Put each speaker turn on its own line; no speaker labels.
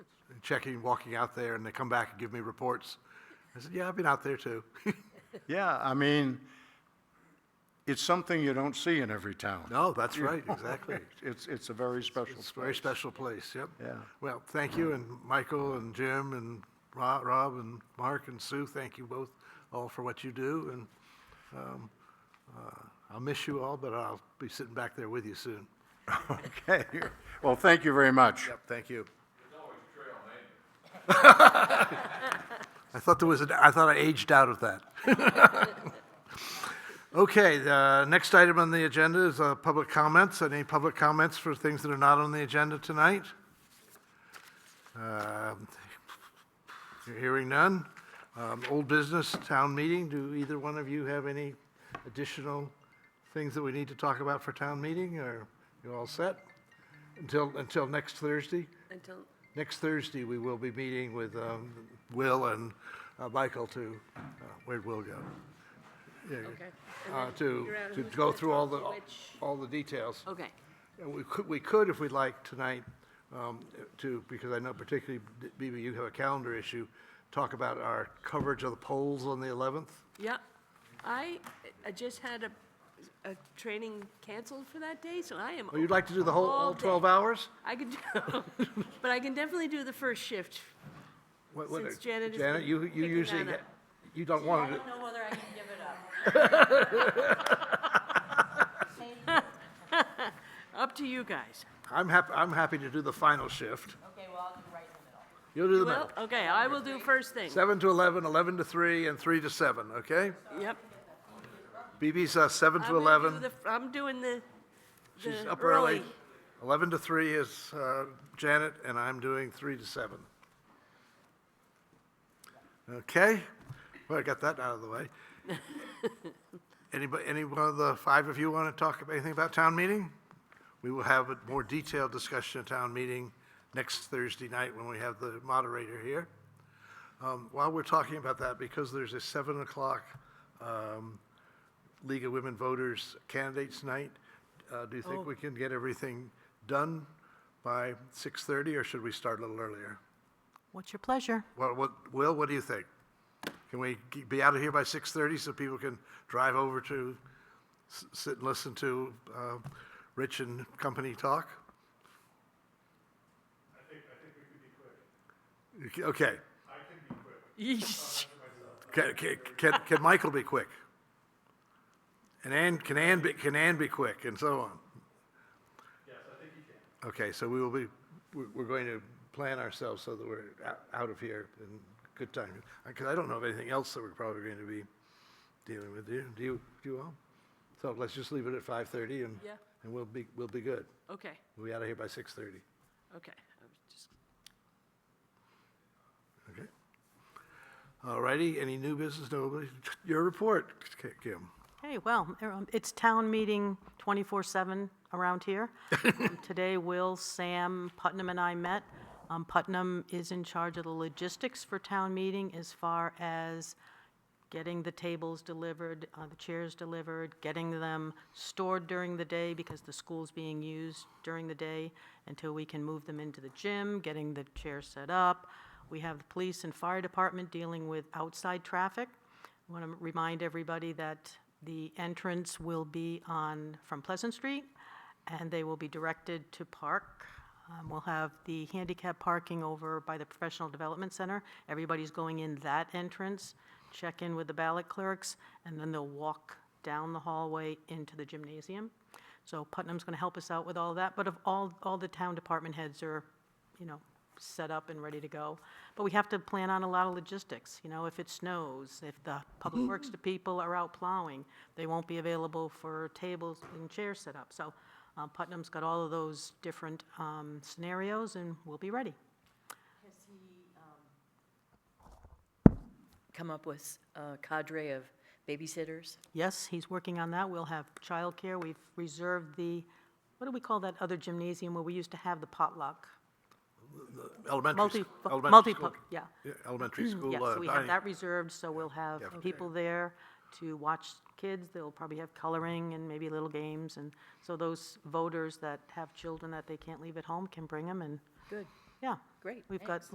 checking, walking out there, and they come back and give me reports. I said, yeah, I've been out there too.
Yeah, I mean, it's something you don't see in every town.
No, that's right, exactly.
It's, it's a very special
It's a very
place.
special place, yep.
Yeah.
Well, thank you, and Michael and Jim and Ro- Rob and Mark and Sue, thank you both all for what you do, and um, uh, I'll miss you all, but I'll be sitting back there with you soon.
Okay, well, thank you very much.
Yep, thank you. I thought there was, an- I thought I aged out of that. Okay, the next item on the agenda is uh, public comments. Any public comments for things that are not on the agenda tonight? Um, Hearing none. Um, Old business, town meeting. Do either one of you have any additional things that we need to talk about for town meeting, or you all set? Until, until next Thursday?
Until,
Next Thursday, we will be meeting with um, Will and uh, Michael to, uh, where'd Will go? Yeah,
okay.
uh,
And then
To,
figure out
to
who's
go
gonna
through all
talk
the,
to which-
all the details.
Okay,
And we could, we could, if we'd like, tonight, um, to, because I know particularly, Bibi, you have a calendar issue, talk about our coverage of the polls on the 11th.
yeah. I, I just had a, a training canceled for that day, so I am.
Oh, you'd like to do the whole, all 12 hours?
I could, do- but I can definitely do the first shift.
What- what-
Since Janet has
Janet,
been
you, you
picking
usually,
on it.
you don't want to do.
I don't know whether I can give it up.
Up to you guys.
I'm happy, I'm happy to do the final shift.
Okay, well, I'll do right in the middle.
You'll do the middle.
Well, okay, I will do first thing.
7 to 11, 11 to 3, and 3 to 7, okay?
Yep.
BB's uh, 7
I'm
to
gonna do
11.
the- I'm doing the,
She's
the
up early. 11 to 3 is uh, Janet, and I'm doing 3 to 7. Okay? Well, I got that out of the way. Anybody, any one of the five of you want to talk about anything about town meeting? We will have a more detailed discussion at town meeting next Thursday night when we have the moderator here. Um, While we're talking about that, because there's a 7 o'clock um, League of Women Voters Candidates Night, uh, do you think we can get everything done by 6:30, or should we start a little earlier?
What's your pleasure?
Well, what, Will, what do you think? Can we ge- be out of here by 6:30 so people can drive over to, s- sit and listen to uh, Rich and company talk? I think, I think we could be quick. Okay.
Yeesh.
Can, can, can, can Michael be quick? And Ann, can Ann be, can Ann be quick and so on? Yes, I think you can. Okay, so we will be, we're, we're going to plan ourselves so that we're out, out of here in good time. Because I don't know of anything else that we're probably going to be dealing with. Do you, do you, do you all? So let's just leave it at five thirty and,
Yeah.
and we'll be, we'll be good.
Okay,
We'll be out of here by six thirty.
okay. I was just-
Okay? All righty, any new business? Nobody? Your report, Kim.
Hey, well, um, it's town meeting 24/7 around here. Um, Today, Will, Sam, Putnam, and I met. Um, Putnam is in charge of the logistics for town meeting as far as getting the tables delivered, uh, the chairs delivered, getting them stored during the day because the school's being used during the day until we can move them into the gym, getting the chairs set up. We have the police and fire department dealing with outside traffic. I want to remind everybody that the entrance will be on, from Pleasant Street, and they will be directed to Park. Um, We'll have the handicap parking over by the Professional Development Center. Everybody's going in that entrance, check in with the ballot clerks, and then they'll walk down the hallway into the gymnasium. So Putnam's going to help us out with all that, but of all, all the town department heads are, you know, set up and ready to go. But we have to plan on a lot of logistics, you know, if it snows, if the public works to people are out plowing, they won't be available for tables and chairs set up. So uh, Putnam's got all of those different um, scenarios, and we'll be ready.
Has he come up with a cadre of babysitters?
Yes, he's working on that. We'll have childcare. We've reserved the, what do we call that other gymnasium where we used to have the potluck?
Elementary,
Multi,
sch- elementary
multi,
school.
yeah. Mm-hmm.
Yeah, Elementary school
Yeah,
uh,
so Mm, we have
dining.
that reserved, so we'll have
Okay.
people there to watch kids. They'll probably have coloring and maybe little games, and so those voters that have children that they can't leave at home can bring them, and,
Good,
yeah.
Great,
We've got